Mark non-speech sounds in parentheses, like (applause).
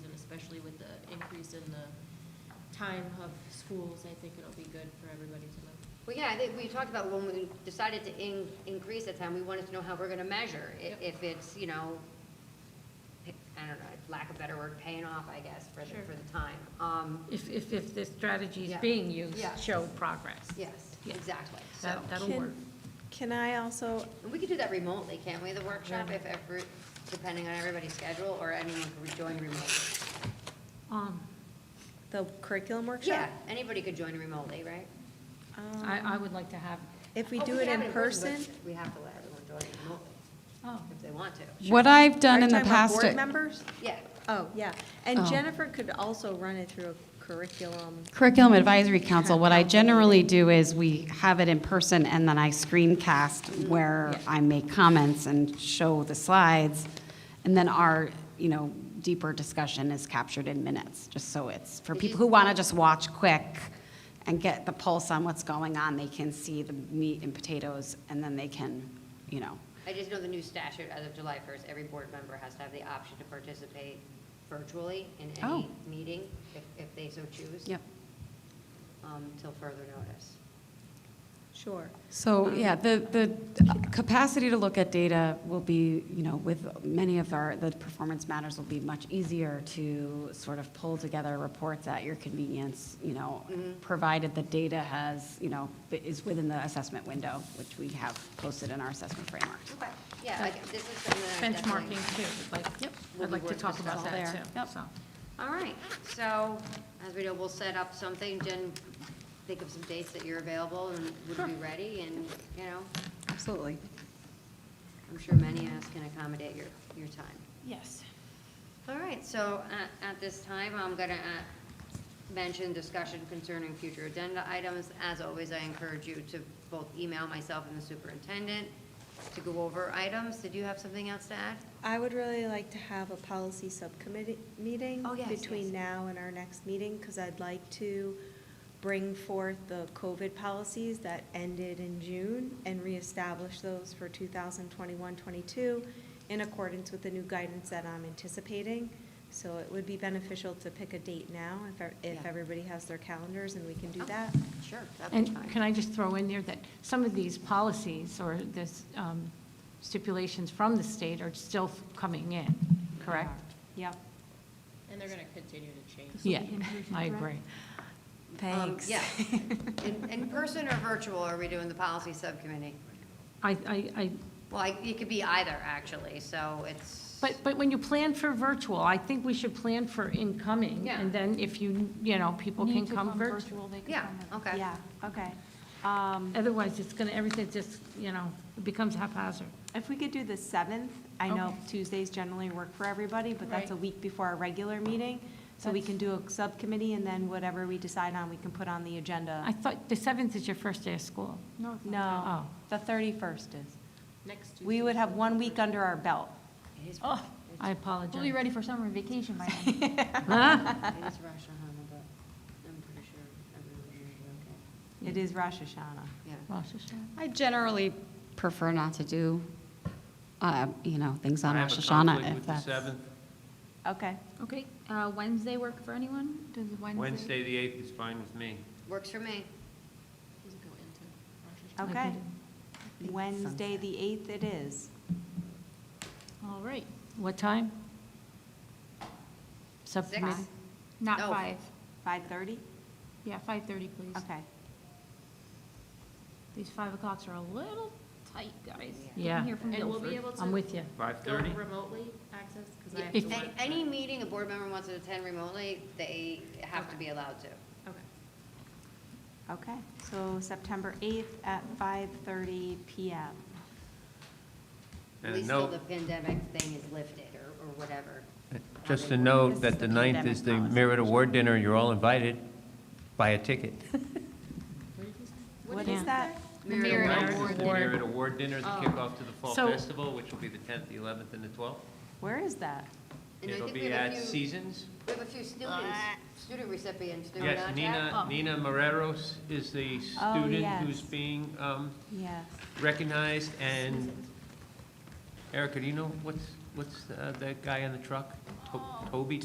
especially with the increase in the time of schools, I think it'll be good for everybody to know. Well, yeah, I think we talked about when we decided to in, increase the time, we wanted to know how we're gonna measure, i- Yep. if it's, you know, I don't know, lack of better word, paying off, I guess, for the, Sure. for the time. Um, If, if, if the strategy is Yeah. being used, Yeah. show progress. yes, Yeah. exactly, so, That, that'll Can- work. Can I also, and we could do that remotely, can't we, the workshop, if every, depending on everybody's schedule, or anyone could join remotely? Um, the curriculum Yeah, workshop? anybody could join remotely, right? Um, I, I would like to have, If we Oh, do it have in person? but We have to let everyone join remotely, oh, if they want to, What I've done Are in you the talking about past. board members? yeah. Oh, yeah. And Oh. Jennifer could also run it through a curriculum. Curriculum Advisory Council, what I generally do is we have it in person and then I screencast where I make comments and show the slides. And then our, you know, deeper discussion is captured in minutes, just so it's, for people who want to just watch quick and get the pulse on what's going on, they can see the meat and potatoes and then they can, you know. I just know the new statute as of July 1st, every board member has to have the option to participate virtually in any Oh. meeting if, if they so choose. Yep. um, Till further notice. Sure. So, yeah, the, the capacity to look at data will be, you know, with many of our, the performance matters will be much easier to sort of pull together reports at your convenience, you know, provided the data has, you know, is within the assessment window, which we have posted in our assessment framework. Okay. Yeah, like, this is something that I definitely. benchmarking too, like, We'll I'd be like to working talk this about all that there. too, Yep. so. All right, so as we know, we'll set up something, Jen, think of some dates that you're available and would be ready and, you know, Absolutely. I'm sure many of us can accommodate your, your time. Yes. All right, so at, at this time, I'm gonna uh, mention discussion concerning future agenda items. As always, I encourage you to both email myself and the superintendent to go over items. Did you have something else to add? I would really like to have a policy subcommittee meeting Oh, yes, yes. between now and our next meeting, because I'd like to bring forth the COVID policies that ended in June and reestablish those for 2021, 22 in accordance with the new guidance that I'm anticipating. So it would be beneficial to pick a date now if, e- if Yeah. everybody has their calendars and we can do Oh. that. Sure, that'd be And can fine. I just throw in there that some of these policies or this um, stipulations from the state are still coming in, correct? Yep. And they're gonna continue to change. Yeah, I agree. (laughs) Um, Yeah. In, in person or virtual, are we doing the policy subcommittee? I, I, I Well, I- it could be either, actually, so it's. But, but when you plan for virtual, I think we should plan for incoming, Yeah. and then if you, you know, people can Need to come virtual. virtual, they can Yeah, come virtual. okay. Yeah, okay. Um, Otherwise, it's gonna, everything just, you know, it becomes haphazard. If we could do the 7th, I know Tuesdays generally work for everybody, but that's a Right. week before our regular meeting. So we can do a subcommittee, and then whatever we decide on, we can put on the I agenda. thought the seventh is your first day of school. No, Oh. the 31st is. Next Tuesday. We would have one week under our belt. It is, Oh. I apologize. We'll be ready for summer vacation by then. Huh? it is Rosh Hashanah, but I'm pretty sure everyone will be It is Rosh Hashanah. okay. Yeah. Rosh Hashanah. I generally prefer not to do, uh, you know, things on I have Rosh a Hashanah conflict if with the that's. 7th. Okay. Okay, uh, Wednesday work for anyone? Does Wednesday? Wednesday, the 8th is fine with me. Works for me. Does it go into Rosh Hashanah? Okay. do Wednesday, sunset. the 8th it is. All right, What time? Subcommittee? Six? not No. five. 5:30? Yeah, five thirty, please. Okay. These five o'clocks are a little tight, guys. Yeah. I'm here from And we'll be Guilford. able to. I'm with you. Go 5:30? remotely access, because I have If- to Any, work. any meeting a board member wants to attend remotely, they have to be allowed to. Okay. Okay, so September 8th at 5:30 PM. At And a least till note, the pandemic thing is lifted or, or whatever. just a note that the 9th is the Merit Award Dinner. You're all invited. Buy a ticket. What is that? (laughs) Merit Ninth Award is the Dinner. Oh. Merit Award Dinner, the kickoff to the Fall So- Festival, which will be the 10th, the 11th, and the 12th. Where is that? And I It'll think we be have a at few- Seasons. We have a few students, student recipients, do we not, Oh. Yes, Jack? Nina, Nina Marreros is the Oh, student who's yes. being um, Yes. recognized. And Oh. Erica, do you know what's, what's uh, that guy on the truck? To- Toby